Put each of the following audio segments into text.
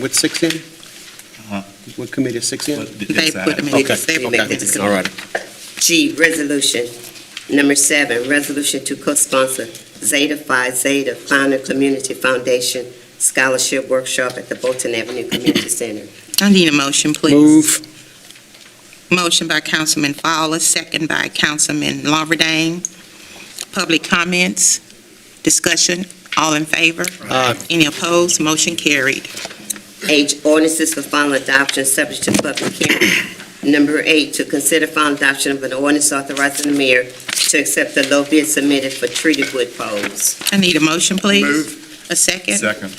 What's six in? Uh-huh. What committee is six in? But th- They it's put out. them in. Okay, They make okay. this- All right. G, resolution. Number seven, resolution to co-sponsor Zeta Phi Zeta Founder Community Foundation Scholarship Workshop at the Bolton Avenue Community Center. I need a motion, please. Move. Motion by Councilman Fowler, second by Councilman Lawberdane. Public comments, discussion, all in favor? Aye. Any opposed? Motion carried. H, ordinances for final adoption subject to public hearing. Number eight, to consider final adoption of an ordinance authorizing the mayor to accept the low bid submitted for treated wood poles. I need a motion, please. A second? Second.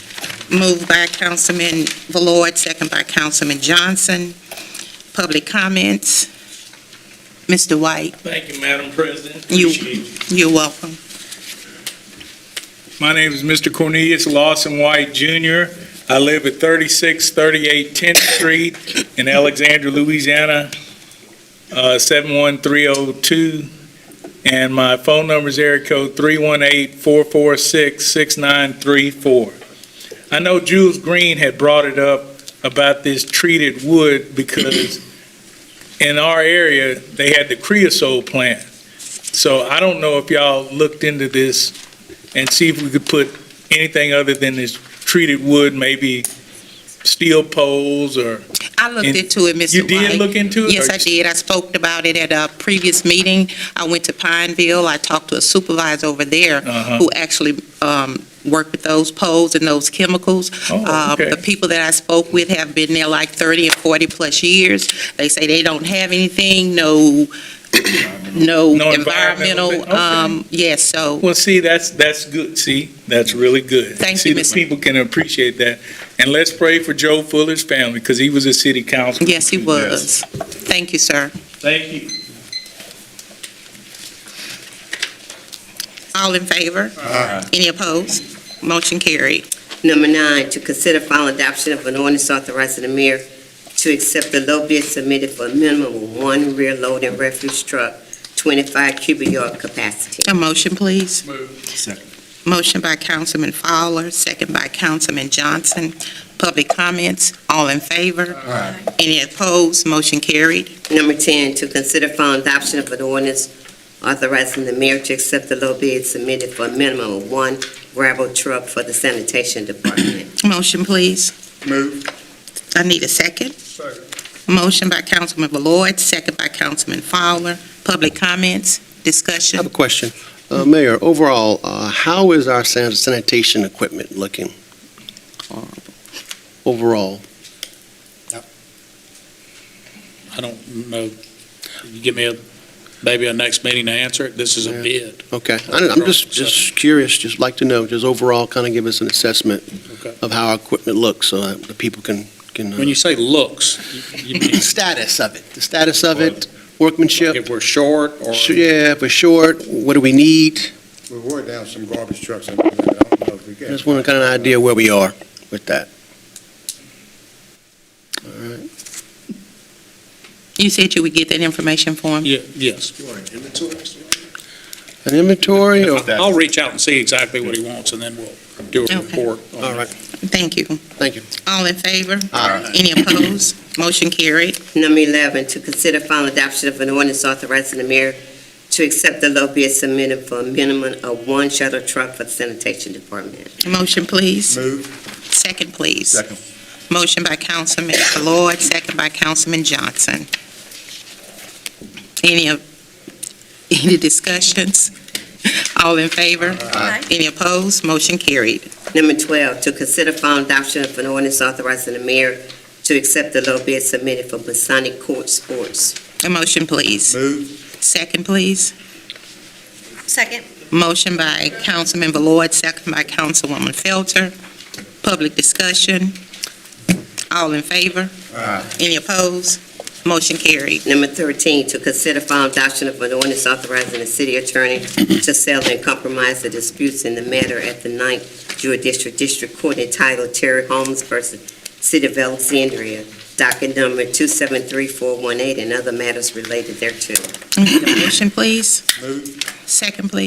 Moved by Councilman Valord, second by Councilman Johnson. Public comments. Mr. White, Thank you, Madam President. You- Appreciate it. you're welcome. My name is Mr. Cornelius Lawson White Jr. I live at 3638 10th Street in Alexandria, Louisiana, uh, 71302. And my phone number is area code 318-446-6934. I know Jules Green had brought it up about this treated wood because in our area, they had the creosote plant. So I don't know if y'all looked into this and see if we could put anything other than this treated wood, maybe steel poles or, I looked And into it, Mr. White. you did look into it? Yes, I or just- did. I spoke about it at a previous meeting. I went to Pineville. I talked to a supervisor over there Uh-huh. who actually um, worked with those poles and those chemicals. Oh, Uh, okay. The people that I spoke with have been there like 30 and 40-plus years. They say they don't have anything, no, no No environmental environmental, thing? Okay. um, yes, so, Well, see, that's, that's good. See, that's really good. Thank See, you, the Mr. people can appreciate that. And let's pray for Joe Fuller's family because he was a city councilman. yes, he was. Thank you, sir. Thank you. All in favor? Any opposed? Motion carried. Number nine, to consider final adoption of an ordinance authorizing the mayor to accept the low bid submitted for a minimum of one rear loading refuse truck, 25 cubic yard capacity. A motion, please. Second. Motion by Councilman Fowler, second by Councilman Johnson. Public comments, all in favor? Any opposed? Motion carried. Number 10, to consider final adoption of an ordinance authorizing the mayor to accept the low bid submitted for a minimum of one gravel truck for the sanitation department. Motion, please. Move. I need a second. Motion by Councilman Valord, second by Councilman Fowler. Public comments, I have discussion. a question. Uh, Mayor, overall, uh, how is our san- sanitation equipment looking? Uh, Overall? I don't know, Mm, uh, you give me a, maybe a next meeting to answer it, this is a Yeah. bid. Okay, I don't- I'm just, just curious, just like to know, just overall, kind of give us an assessment Okay. of how our equipment looks so that the people can, can, When uh, you say looks, you- you mean status of it, the status of it, workmanship, if we're short or, Sh- yeah, if we're short, what do we need? We wore down some garbage trucks, and I don't know if we I got. Just want to kind of idea where we are with that. All right, You said you would get that information for him? Yeah, yes. an inventory or, I'll reach out and see exactly what he wants, and then we'll do a Okay. report. on all that. right, Thank you. thank you. All in favor? Aye. Any opposed? Motion carried. Number 11, to consider final adoption of an ordinance authorizing the mayor to accept the low bid submitted for a minimum of one shuttle truck for the sanitation department. Motion, please. Move, Second, please. Second. Motion by Councilman Ballard, second by Councilman Johnson. Any, of- any discussions? All in favor? Any opposed? Motion carried. Number 12, to consider final adoption of an ordinance authorizing the mayor to accept the low bid submitted for Masonic Court Sports. A motion, please. move, Second, please. Second. Motion by Councilman Ballard, second by Councilwoman Felter. Public discussion. All in favor? Any opposed? Motion carried. Number 13, to consider final adoption of an ordinance authorizing the city attorney to settle and compromise the disputes in the matter at the Ninth Judicial District Court entitled Terry Holmes versus City of Alexandria, docket number 273418, and other matters related thereto. Need a motion, please. move. Second, please.